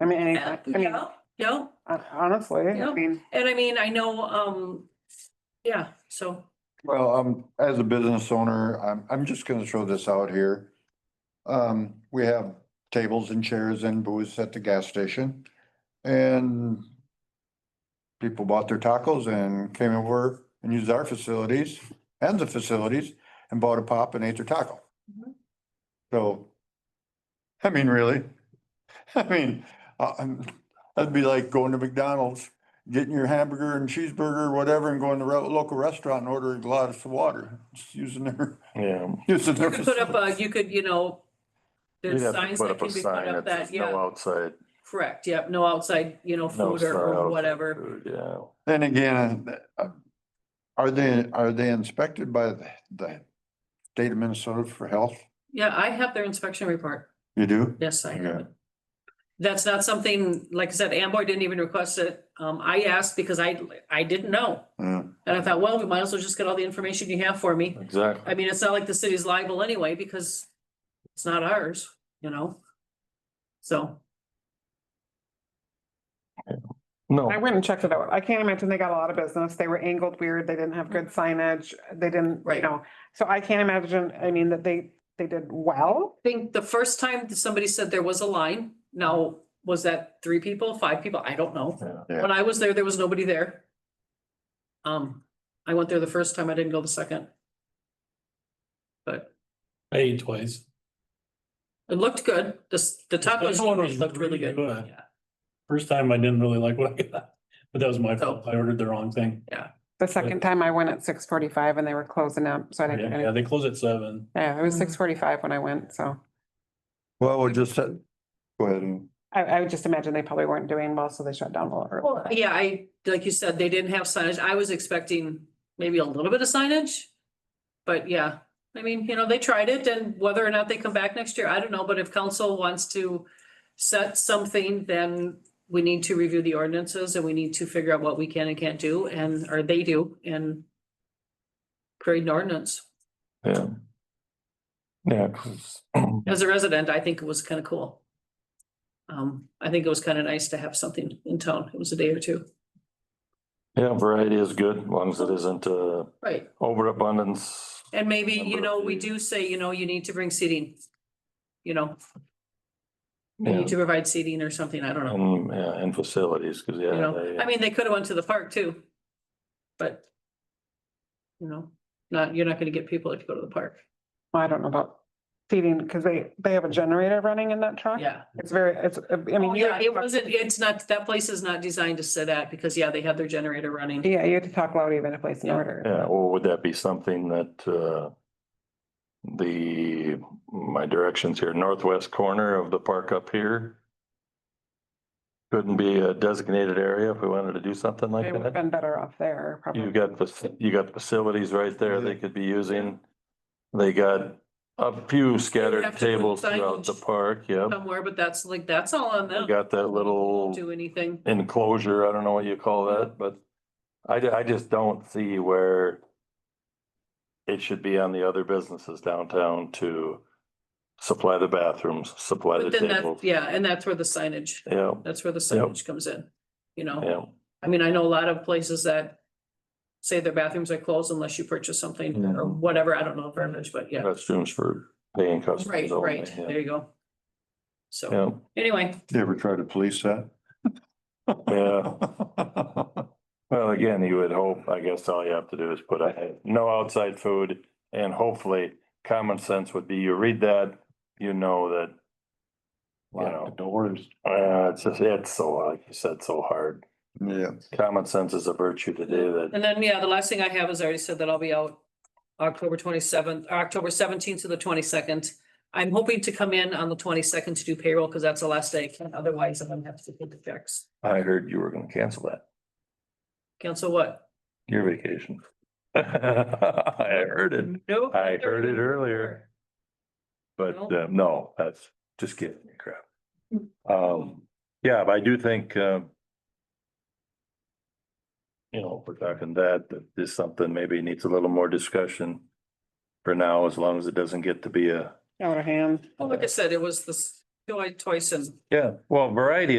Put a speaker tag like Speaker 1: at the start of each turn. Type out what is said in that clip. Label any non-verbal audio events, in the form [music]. Speaker 1: I mean, any-
Speaker 2: Yeah,
Speaker 1: I mean,
Speaker 2: yeah,
Speaker 1: hon- honestly, I
Speaker 2: Yeah.
Speaker 1: mean,
Speaker 2: and I mean, I know, um, yeah, so,
Speaker 3: Well, um, as a business owner, I'm, I'm just gonna throw this out here. Um, we have tables and chairs and booths at the gas station and people bought their tacos and came over and used our facilities and the facilities and bought a pop and ate their taco.
Speaker 2: Mhm.
Speaker 3: So, I mean, really, [laughs] I mean, uh, um, that'd be like going to McDonald's getting your hamburger and cheeseburger or whatever and going to a local restaurant and ordering a glass of water, just using their, [laughs]
Speaker 4: Yeah.
Speaker 3: using their.
Speaker 2: you could put up a, you could, you know,
Speaker 4: You'd
Speaker 2: there's
Speaker 4: have to
Speaker 2: signs
Speaker 4: put
Speaker 2: that
Speaker 4: up a
Speaker 2: can be put
Speaker 4: sign
Speaker 2: up
Speaker 4: that
Speaker 2: that,
Speaker 4: says no
Speaker 2: yeah,
Speaker 4: outside.
Speaker 2: correct, yep, no outside, you know,
Speaker 4: no
Speaker 2: food or-
Speaker 4: sign
Speaker 2: or
Speaker 4: outside
Speaker 2: whatever.
Speaker 4: food, Yeah.
Speaker 3: Then again, uh, are they, are they inspected by the, the state of Minnesota for health?
Speaker 2: Yeah, I have their inspection report.
Speaker 3: You do?
Speaker 2: Yes, I have
Speaker 3: Okay.
Speaker 2: it. That's not something, like I said, Amboy didn't even request it. Um, I asked because I, I didn't know.
Speaker 3: Yeah,
Speaker 2: And I thought, well, we might as well just get all the information you have for me.
Speaker 4: Exactly.
Speaker 2: I mean, it's not like the city's liable anyway because it's not ours, you know? So,
Speaker 4: No.
Speaker 1: I went and checked it out. I can't imagine they got a lot of business. They were angled weird. They didn't have good signage. They didn't, you
Speaker 2: Mm-hmm. Right.
Speaker 1: know, so I can't imagine, I mean, that they, they did well.
Speaker 2: I think the first time that somebody said there was a line, now, was that three people, five people? I don't know.
Speaker 4: Yeah.
Speaker 3: Yeah.
Speaker 2: When I was there, there was nobody there. Um, I went there the first time, I didn't go the second. But
Speaker 5: I ate twice.
Speaker 2: it looked good. The, s- the tacos
Speaker 5: first one was
Speaker 2: looked really
Speaker 5: really
Speaker 2: good.
Speaker 5: good.
Speaker 2: Yeah.
Speaker 5: First time I didn't really like what I got, but that was my
Speaker 2: Oh.
Speaker 5: fault. I ordered the wrong thing.
Speaker 1: The second time I went at six forty-five and they were closing up, so I didn't. get
Speaker 5: Yeah,
Speaker 1: any-
Speaker 5: they close at seven.
Speaker 1: Yeah, it was
Speaker 2: Mm-hmm.
Speaker 1: six forty-five when I went, so
Speaker 3: well, we just uh, said, go ahead and.
Speaker 1: I, I would just imagine they probably weren't doing well, so they shut down a little early.
Speaker 2: Well, yeah, I, like you said, they didn't have signage. I was expecting maybe a little bit of signage. But yeah, I mean, you know, they tried it and whether or not they come back next year, I don't know, but if council wants to set something, then we need to review the ordinances and we need to figure out what we can and can't do and, or they do and create an ordinance.
Speaker 4: Yeah. Yeah, 'cause- [clears throat]
Speaker 2: As a resident, I think it was kind of cool. Um, I think it was kind of nice to have something in town. It was a day or two.
Speaker 4: yeah, variety is good, as long as it isn't, uh,
Speaker 2: Right.
Speaker 4: overabundance.
Speaker 2: And maybe, you
Speaker 4: Number
Speaker 2: know,
Speaker 4: of
Speaker 2: we
Speaker 4: days.
Speaker 2: do say, you know, you need to bring seating. You know, you
Speaker 4: Yeah.
Speaker 2: need to provide seating or something, I don't know,
Speaker 4: And, yeah, and facilities, cause
Speaker 2: you
Speaker 4: yeah.
Speaker 2: know,
Speaker 4: they-
Speaker 2: I mean, they could have went to the park too. But. You know, not, you're not gonna get people if you go to the park,
Speaker 1: I don't know about feeding, because they, they have a generator running in that truck.
Speaker 2: yeah.
Speaker 1: It's very, it's, I mean.
Speaker 2: Oh,
Speaker 1: you
Speaker 2: Yeah,
Speaker 1: have to
Speaker 2: it
Speaker 1: talk-
Speaker 2: wasn't, it's not, that place is not designed to sit at, because yeah, they have their generator running,
Speaker 1: Yeah, you had to talk loud even to place an
Speaker 2: Yeah.
Speaker 1: order.
Speaker 4: Yeah, or would that be something that, uh, the, my directions here, northwest corner of the park up here? Couldn't be a designated area if we wanted to do something
Speaker 1: They
Speaker 4: like
Speaker 1: would have
Speaker 4: that?
Speaker 1: been better off there,
Speaker 4: You
Speaker 1: probably.
Speaker 4: got, fac- you got facilities right there they
Speaker 3: Yeah.
Speaker 4: could be using. They got a few
Speaker 2: have
Speaker 4: scattered
Speaker 2: to put
Speaker 4: tables throughout the
Speaker 2: signage.
Speaker 4: park, yep.
Speaker 2: somewhere, but that's like, that's all on
Speaker 4: They
Speaker 2: them.
Speaker 4: got that little
Speaker 2: Do anything,
Speaker 4: enclosure, I don't know what you call that, but I, ju- I just don't see where it should be on the other businesses downtown to supply the bathrooms, supply the
Speaker 2: but then that,
Speaker 4: tables.
Speaker 2: yeah, and that's where the signage,
Speaker 4: Yeah,
Speaker 2: that's where the
Speaker 4: Yep.
Speaker 2: signage comes in, you know?
Speaker 4: yeah,
Speaker 2: I mean, I know a lot of places that say their bathrooms are closed unless you purchase something or
Speaker 4: Mhm.
Speaker 2: whatever, I don't know verbiage, but yeah.
Speaker 4: restrooms for paying
Speaker 2: Right,
Speaker 4: customers only,
Speaker 2: right,
Speaker 4: yeah.
Speaker 2: there you go. So,
Speaker 4: Yeah,
Speaker 2: anyway,
Speaker 3: You ever try to police [laughs] that?
Speaker 4: yeah. Well, again, you would hope, I guess all you have to do is put a, no outside food and hopefully common sense would be you read that, you know that
Speaker 3: Lock the doors.
Speaker 4: Uh, it's just, it's so, like you said, so hard.
Speaker 3: Yeah.
Speaker 4: Common sense is a virtue today that,
Speaker 2: and then, yeah, the last thing I have is I already said that I'll be out October twenty-seventh, October seventeenth to the twenty-second. I'm hoping to come in on the twenty-second to do payroll because that's the last day. Otherwise, I'm gonna have to take the checks.
Speaker 4: I heard you were gonna cancel that,
Speaker 2: Cancel what?
Speaker 4: your vacation. [laughs] I heard it,
Speaker 2: Nope.
Speaker 4: I heard it earlier. But, uh, no, that's just kidding, crap. Um, yeah, but I do think, uh, you know, if we're talking that, that this something maybe needs a little more discussion for now, as long as it doesn't get to be a,
Speaker 1: Out of hand.
Speaker 2: Well, Like I said, it was this, twice and
Speaker 4: yeah, well, variety